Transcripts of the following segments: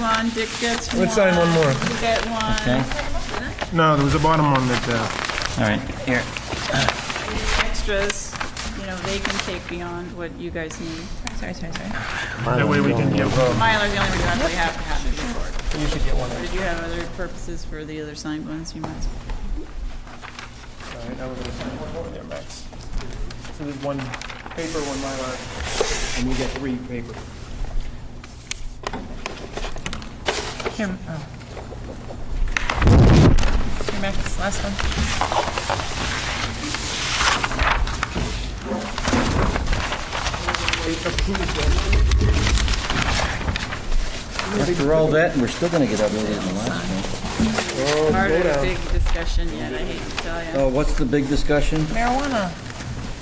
one, Dick gets one. Let's sign one more. You get one. Okay, No, there was a bottom one that, uh, all right, here. Extras, you know, they can take beyond what you guys need. Sorry, sorry, sorry. that way we can give, uh, Mylar's the only one you actually have to have in your report. But Did you have other purposes for the other signed ones you might? so there's one paper, one Mylar, and we get three paper. Here, oh. Here, Max, this last one. After all that, we're still gonna get updated in the last one. Oh, Part of a big discussion yet, I hate to tell you. Oh, what's the big discussion? Marijuana.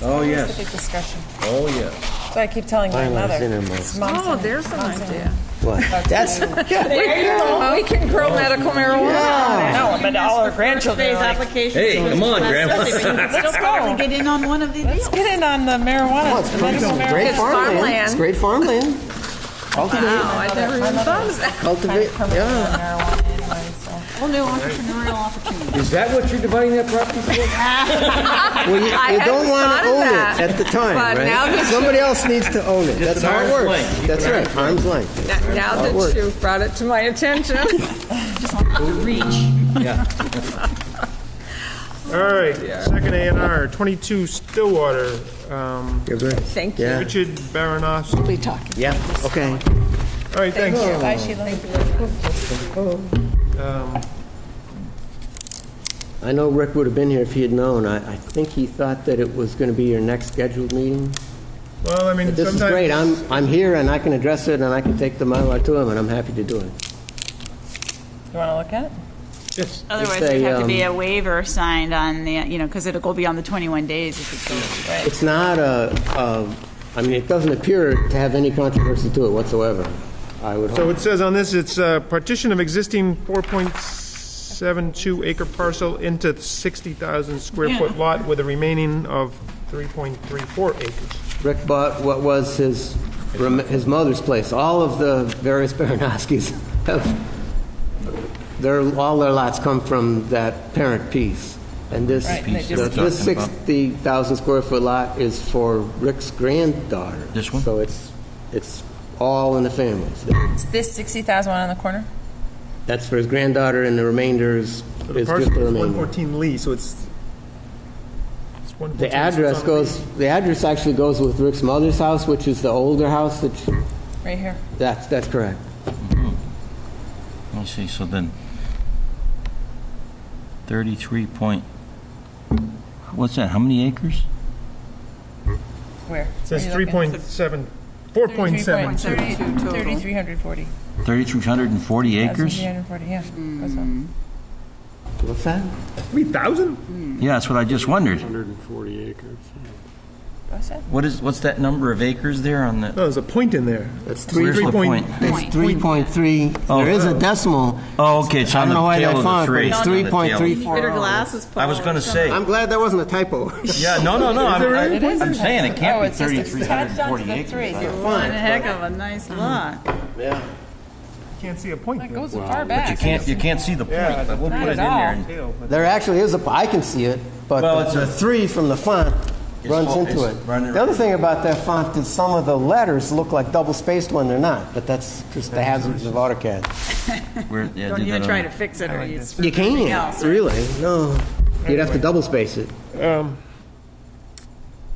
Oh, That's the big yes, discussion. oh, yes. So I keep telling my Mylar's in mother. a month. It's mom's in it. there's an idea. That's, We can grow medical marijuana. No, but all our grandchildren Phase are like, application. Hey, come on, Grandma. Still probably get in on one of these. let's get in on the marijuana. it's the medical marijuana. great farmland. It's great farmland. Cultivate, cultivate, yeah. Marijuana anyway, so. Whole new entrepreneurial opportunity. Is that what you're dividing that property for? Well, you, you don't hadn't want thought to of own that. it at the time, But now right? that Somebody else needs to own it. That's an how it arm's length. works. Keep That's it right, arm's length. Now That works. that you've brought it to my attention. All right, second A and R, 22 Stillwater, um, You're good. Thank you. Yeah. Richard Baranos. We talked. Yeah, okay. All right, thanks. Bye, Sheila. I know Rick would have been here if he had known. I, I think he thought that it was going to be your next scheduled meeting. Well, I mean, But this is great. sometimes, I'm, I'm here and I can address it and I can take the Mylar to him and I'm happy to do it. You want to look at it? Otherwise, It's a, there'd have to be um, a waiver signed on the, you know, because it'll go beyond the 21 days if it goes, right? It's not a, a, I mean, it doesn't appear to have any controversy to it whatsoever, I would so hope. it says on this, it's uh partition of existing 4.72 acre parcel into 60,000 square foot lot with a remaining of 3.34 acres. Rick bought what was his, rem- his mother's place. All of the various Baranowskis have, their, all their lots come from that parent piece. And this, Right, and they the- this 60,000 square foot lot is for Rick's granddaughter. This one? So it's, it's all in the family. It's this 60,000 one on the corner? That's for his granddaughter and the remainder is, So the is just parcel the is remainder. 114 Lee, so it's, it's 114. The so it's address on goes, the address actually goes with Rick's mother's house, which is the older house that, she- Right here. that's, that's correct. Let me see, so then, thirty-three point, what's that, how many acres? Where? It says Where are you looking? 3.7, 4.7. 3,340. Thirty-three hundred and forty acres? Hmm. 3,340, yeah. That's all. What's that? 3,000? Yeah, that's what I just wondered. 140 acres. What's that? What is, what's that number of acres there on the, No, there's a point in there. That's three, where's the point? it's 3.3, there is a decimal. Oh, okay, it's I on don't know the why they tail of the found it, but tree. it's on the tail of the tree. 3.34. Better glasses, Paul. I was gonna or something. say, I'm glad that wasn't a typo. yeah, no, no, no, I'm, It I- is I'm attached. saying it Oh, can't be it's just thirty-three hundred and forty attached onto the acres. three. One heck of a nice lot. Can't see a point. It goes far back. But you can't, you can't see the point, Yeah, I would not put it in at all. there. and- There actually is a, I can see it, but Well, it's the a- the three from the font It's runs all- into it's it. running- The other thing about that font is some of the letters look like double-spaced when they're not, but that's just the hazards of AutoCAD. Where- yeah, Don't did even that try on- to fix it or it's. You else, can't, right? really, no. You'd have to double-space it.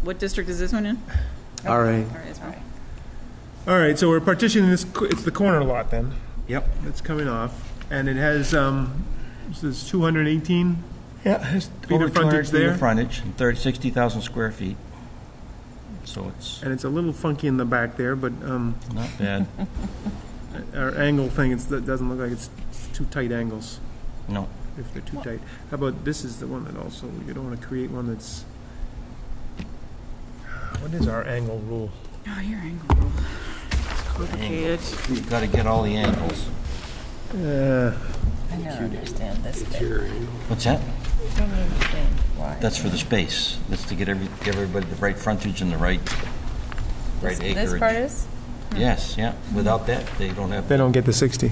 What district is this one in? All right. All right, it's fine. All right, so we're partitioning this, co- it's the corner lot then, Yep. that's coming off, and it has, um, this is 218? Yeah. it's Feet of Over two frontage hundred feet there. of frontage, and thirty, sixty thousand square feet. So it's And it's a little funky in the back there, but um, not bad, our angle thing, it's, it doesn't look like it's it's too tight angles, no. if they're too tight. How about, this is the one that also, you don't want to create one that's, what is our angle rule? Oh, your angle. It's complicated. You've got to get all the angles. Uh, I don't understand this bit. What's that? I don't understand why. That's for the space. That's to get every, give everybody the right frontage and the right, right This acreage. part is? Yes, yeah. Without that, they don't have They don't get the 60.